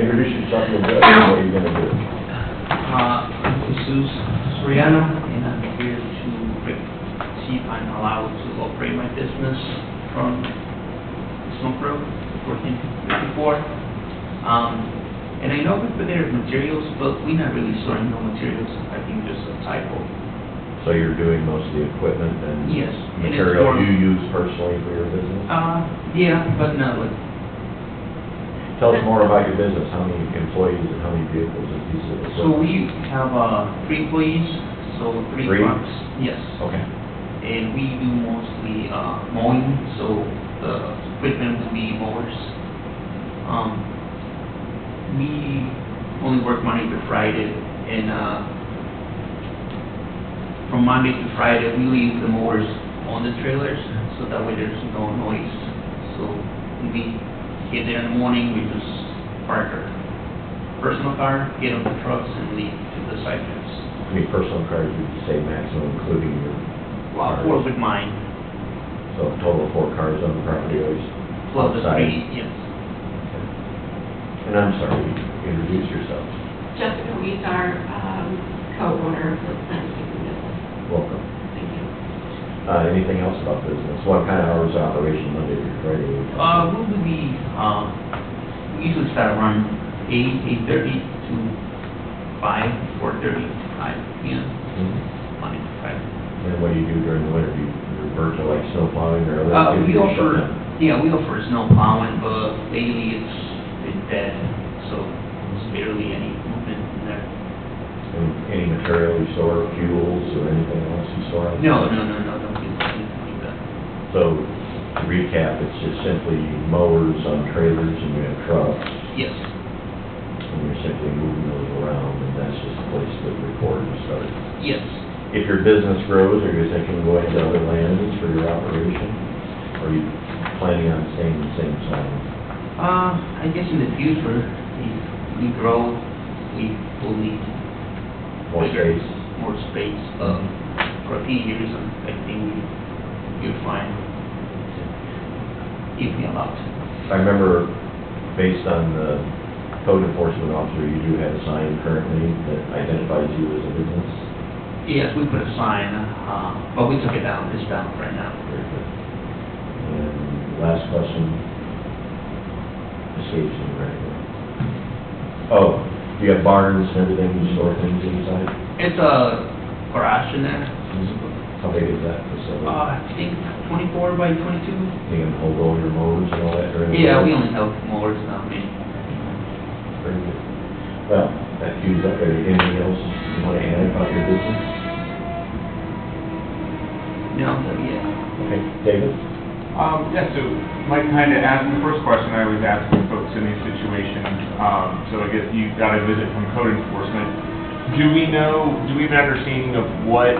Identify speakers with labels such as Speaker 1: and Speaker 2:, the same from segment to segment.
Speaker 1: Introduce yourself a little bit, and what are you gonna do?
Speaker 2: Uh, I'm Jesus Soriano, and I'm here to re- see if I'm allowed to operate my business from Smoke Road, 1454. Um, And I know we put there materials, but we're not really storing no materials. I think there's a typo.
Speaker 1: So you're doing most of the equipment and
Speaker 2: Yes, and it's
Speaker 1: material
Speaker 2: for-
Speaker 1: you use personally for your business?
Speaker 2: Uh, yeah, but no, like,
Speaker 1: Tell us more about your business, how many employees and how many vehicles and pieces of
Speaker 2: so
Speaker 1: equipment?
Speaker 2: we have uh, three employees, so three
Speaker 1: Three?
Speaker 2: trucks. Yes.
Speaker 1: Okay,
Speaker 2: And we do mostly uh, mowing, so the equipment would be mowers. Um, We only work Monday to Friday, and uh, from Monday to Friday, we leave the mowers on the trailers, so that way there's no noise. So when we get there in the morning, we just park our personal car, get on the trucks, and leave to the sidewalks.
Speaker 1: how many personal cars would you say maximum, including your,
Speaker 2: Well, Or with mine,
Speaker 1: so a total of four cars on the property always?
Speaker 2: plus the
Speaker 1: outside?
Speaker 2: three, yes.
Speaker 1: And I'm sorry, introduce yourself,
Speaker 3: Jessica Weeds, our um, co-owner of the landscaping business.
Speaker 1: welcome.
Speaker 3: Thank you.
Speaker 1: Uh, anything else about business? What kind of hours of operation Monday through Friday?
Speaker 2: Uh, we would be, um, we usually start around eight, eight-thirty to five, four-thirty to five, you know,
Speaker 1: Mhm.
Speaker 2: Monday to Friday.
Speaker 1: And what do you do during the winter? Do you revert to like snow plowing or other?
Speaker 2: Uh, we
Speaker 1: activities?
Speaker 2: offer, yeah, we offer snow plowing, but lately it's, it's dead, so there's barely any movement in there.
Speaker 1: And Any material you store, fuels or anything else you store?
Speaker 2: No, no, no, no, don't do anything like that.
Speaker 1: So to recap, it's just simply mowers on trailers and you have trucks
Speaker 2: Yes,
Speaker 1: and you're simply moving those around and that's just a place to record and start.
Speaker 2: yes.
Speaker 1: If your business grows, are you thinking of going to other lands for your operation? Or are you planning on staying the same size?
Speaker 2: Uh, I guess in the future, if we grow, we will need
Speaker 1: More
Speaker 2: bigger,
Speaker 1: space? Uh-huh.
Speaker 2: More space, um, for a few years, um, I think we, you're fine. If we allowed.
Speaker 1: I remember, based on the code enforcement officer, you do have a sign currently that identifies you as a business.
Speaker 2: Yes, we put a sign, uh, but we took it down, it's down right now.
Speaker 1: Very good. And last question, escapes me right now. Oh, you have barns and everything, you store things inside?
Speaker 2: It's a garage in there,
Speaker 1: How big is that facility?
Speaker 2: uh, I think twenty-four by twenty-two.
Speaker 1: You can hold all your mowers and all that during the
Speaker 2: Yeah, we
Speaker 1: winter?
Speaker 2: only have mowers, not many.
Speaker 1: Very good. Well, that cues up, anything else you want to add about your business?
Speaker 2: No, yeah.
Speaker 1: Okay, David?
Speaker 4: Um, yeah, so Mike kind of asked, the first question I always ask when folks in these situations, um, so I guess you got a visit from code enforcement. Do we know, do we have an understanding of what,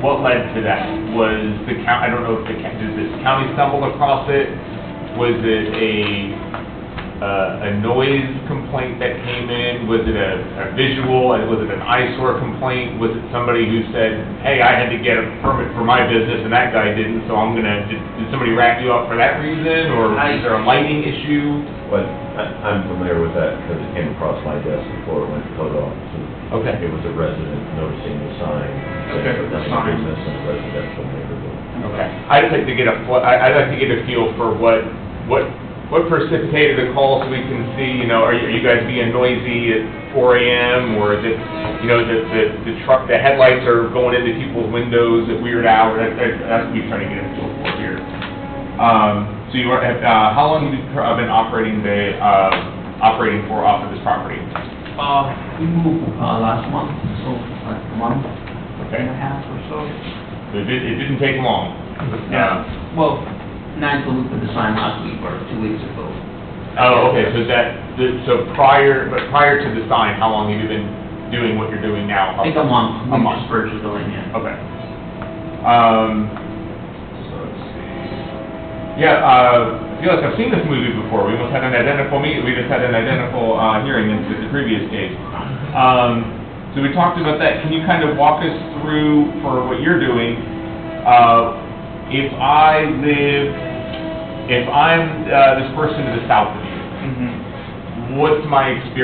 Speaker 4: what led to that? Was the county, I don't know if the, coun- did the county stumble across it? Was it a, uh, a noise complaint that came in? Was it a, a visual, and was it an eyesore complaint? Was it somebody who said, hey, I had to get a permit for my business and that guy didn't, so I'm gonna, did, did somebody wrap you up for that reason? Or
Speaker 2: I-
Speaker 4: is there a lighting issue?
Speaker 1: Well, I- I'm familiar with that because it came across my desk before it went to code office.
Speaker 4: Okay.
Speaker 1: It was a resident noticing the sign.
Speaker 2: Okay,
Speaker 1: saying
Speaker 2: the
Speaker 1: nothing
Speaker 2: sign.
Speaker 1: business in a residential neighborhood.
Speaker 4: Okay. I'd just like to get a, fl- I- I'd like to get a feel for what, what, what precipitated the call so we can see, you know, are you, are you guys being noisy at four AM? Or is it, you know, the, the, the truck, the headlights are going into people's windows at weird hours? That- that- That's what we're trying to get a feel for here. Um, so you are, uh, how long have you cur- uh, been operating the, uh, operating for off of this property?
Speaker 2: Uh, we moved, uh, last month, so, like, a month
Speaker 4: Okay.
Speaker 2: and a half or so.
Speaker 4: So It did, it didn't take long. Uh,
Speaker 2: Yeah, Um, well, not until we put the sign last week or two weeks ago.
Speaker 4: Oh, okay, so that, th- so prior, but prior to the sign, how long have you been doing what you're doing now?
Speaker 2: I think a month,
Speaker 4: A
Speaker 2: we
Speaker 4: month.
Speaker 2: just purchased the land, yeah.
Speaker 4: Okay. Um,
Speaker 1: So it's-
Speaker 4: yeah, uh, I feel like I've seen this movie before, we almost had an identical meet, we just had an identical, uh, hearing in the previous case. Um, so we talked about that, can you kind of walk us through for what you're doing? Uh, if I live, if I'm, uh, this person to the south of you,
Speaker 2: Mm-hmm.
Speaker 4: what's my experience